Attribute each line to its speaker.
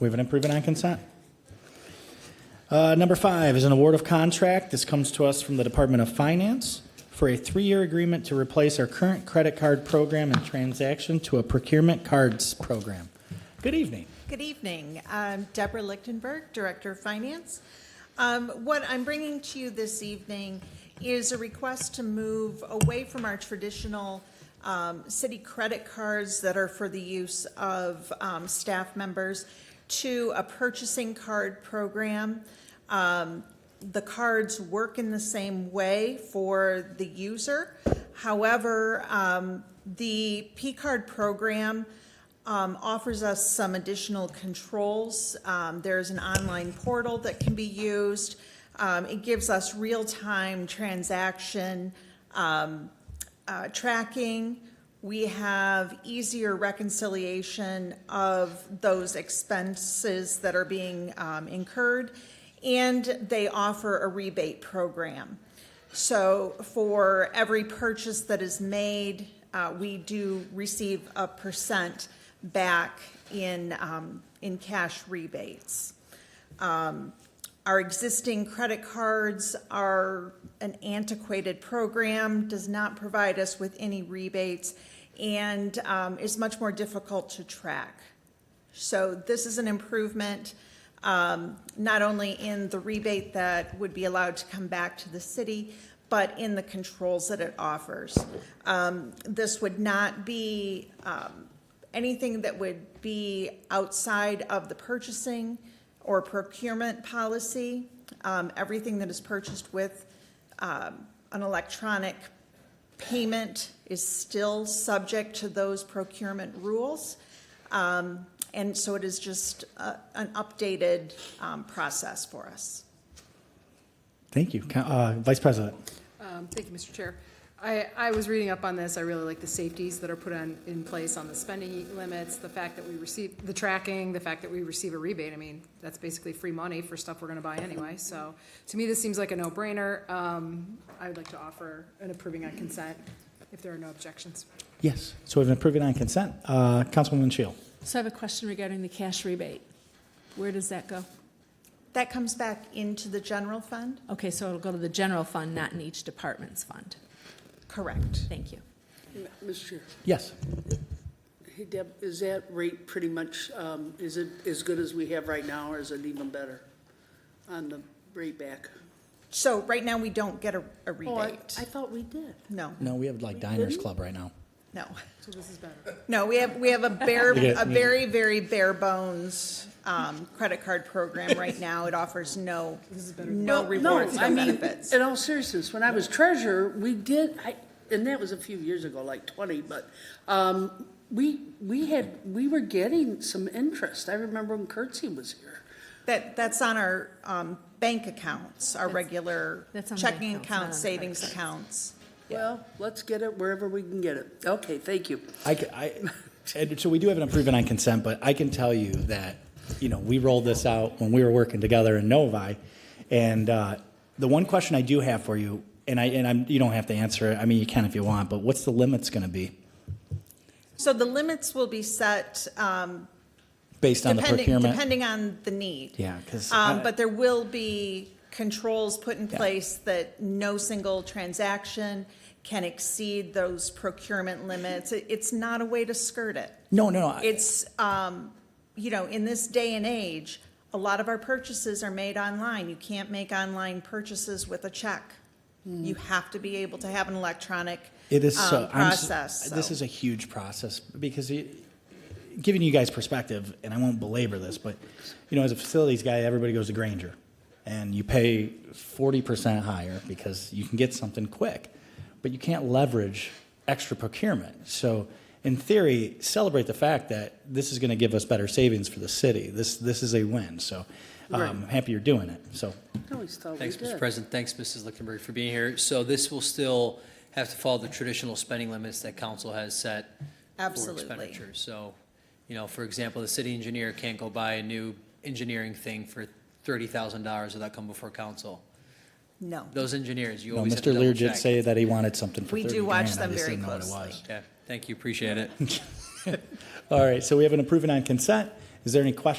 Speaker 1: We haven't approved it on consent. Uh, Number five is an award of contract. This comes to us from the Department of Finance for a three-year agreement to replace our current credit card program and transaction to a procurement cards program. Good evening.
Speaker 2: Good evening. I'm Deborah Lichtenberg, Director of Finance. Um, What I'm bringing to you this evening is a request to move away from our traditional um, city credit cards that are for the use of um, staff members to a purchasing card program. Um, The cards work in the same way for the user. However, um, the P-card program um, offers us some additional controls. Um, There's an online portal that can be used. Um, It gives us real-time transaction um, uh, tracking. We have easier reconciliation of those expenses that are being um, incurred, and they offer a rebate program. So for every purchase that is made, uh, we do receive a percent back in, um, in cash rebates. Our existing credit cards are an antiquated program, does not provide us with any rebates, and um, is much more difficult to track. So this is an improvement, um, not only in the rebate that would be allowed to come back to the city, but in the controls that it offers. Um, This would not be um, anything that would be outside of the purchasing or procurement policy. Um, Everything that is purchased with um, an electronic payment is still subject to those procurement rules. Um, And so it is just uh, an updated um, process for us.
Speaker 1: Thank you. Co- uh, Vice President.
Speaker 3: Um, Thank you, Mr. Chair. I, I was reading up on this. I really like the safeties that are put on, in place on the spending limits, the fact that we receive, the tracking, the fact that we receive a rebate. I mean, that's basically free money for stuff we're gonna buy anyway. So to me, this seems like a no-brainer. Um, I would like to offer an approving on consent if there are no objections.
Speaker 1: Yes. So we've approved it on consent. Uh, Councilwoman Shield.
Speaker 4: So I have a question regarding the cash rebate. Where does that go?
Speaker 2: That comes back into the general fund?
Speaker 4: Okay, so it'll go to the general fund, not in each department's fund.
Speaker 2: Correct.
Speaker 4: Thank you.
Speaker 5: M- Mr. Chair,
Speaker 1: Yes.
Speaker 5: hey Deb, is that rate pretty much, um, is it as good as we have right now, or is it even better on the rate back?
Speaker 2: So right now, we don't get a a
Speaker 5: Oh, I
Speaker 2: rebate.
Speaker 5: I thought we did.
Speaker 2: No,
Speaker 1: No, we have like Diners Club right now.
Speaker 2: no.
Speaker 3: So this is better.
Speaker 2: No, we have, we have a bare,
Speaker 1: Yeah.
Speaker 2: a very, very bare bones um, credit card program right now. It offers no, no
Speaker 5: Well, no,
Speaker 2: rewards,
Speaker 5: I
Speaker 2: no
Speaker 5: mean,
Speaker 2: benefits.
Speaker 5: In all seriousness, when I was treasurer, we did, I, and that was a few years ago, like twenty, but, um, we, we had, we were getting some interest. I remember when Curtsey was here.
Speaker 2: That, that's on our um, bank accounts, our regular
Speaker 4: that's on the
Speaker 2: checking
Speaker 4: accounts, not on
Speaker 2: accounts,
Speaker 4: the credit
Speaker 2: savings
Speaker 4: cards.
Speaker 2: accounts.
Speaker 5: Well, let's get it wherever we can get it. Okay, thank you.
Speaker 1: I, ca- I, and so we do have an improvement on consent, but I can tell you that, you know, we rolled this out when we were working together in Novi. And uh, the one question I do have for you, and I, and I'm, you don't have to answer it. I mean, you can if you want, but what's the limits going to be
Speaker 2: So the limits will be set um,
Speaker 1: based on the
Speaker 2: depending,
Speaker 1: procurement?
Speaker 2: depending on the need.
Speaker 1: Yeah, 'cause I-
Speaker 2: Um, But there will be controls put in place that no single transaction can exceed those procurement limits. It- It's not a way to skirt it.
Speaker 1: No, no, I-
Speaker 2: It's, um, you know, in this day and age, a lot of our purchases are made online. You can't make online purchases with a check. You have to be able to have an electronic
Speaker 1: Hmm. It is so
Speaker 2: um,
Speaker 1: I'm s-
Speaker 2: process.
Speaker 1: This
Speaker 2: so.
Speaker 1: is a huge process because it, giving you guys perspective, and I won't belabor this, but you know, as a facilities guy, everybody goes to Granger, and you pay forty percent higher because you can get something quick, but you can't leverage extra procurement. So, in theory, celebrate the fact that this is going to give us better savings for the city. This this is a win. So, um, happy you're doing it. So,
Speaker 5: I always thought we
Speaker 6: Thanks,
Speaker 5: did.
Speaker 6: Mr. President. Thanks, Mrs. Lichtenberg, for being here. So this will still have to follow the traditional spending limits that council has set for
Speaker 2: Absolutely.
Speaker 6: expenditures. So, you know, for example, the city engineer can't go buy a new engineering thing for thirty thousand dollars without coming before council.
Speaker 2: No.
Speaker 6: Those engineers, you
Speaker 1: you know,
Speaker 6: always have to
Speaker 1: Mr. Lear
Speaker 6: double
Speaker 1: did
Speaker 6: check.
Speaker 1: say that he wanted something for
Speaker 2: We
Speaker 1: 30
Speaker 2: do watch
Speaker 1: grand. I
Speaker 2: them
Speaker 1: just
Speaker 2: very
Speaker 1: didn't know what it
Speaker 2: closely.
Speaker 1: was.
Speaker 6: Yeah, thank you, appreciate it.
Speaker 1: All right, so we have an approving on consent. Is there any questions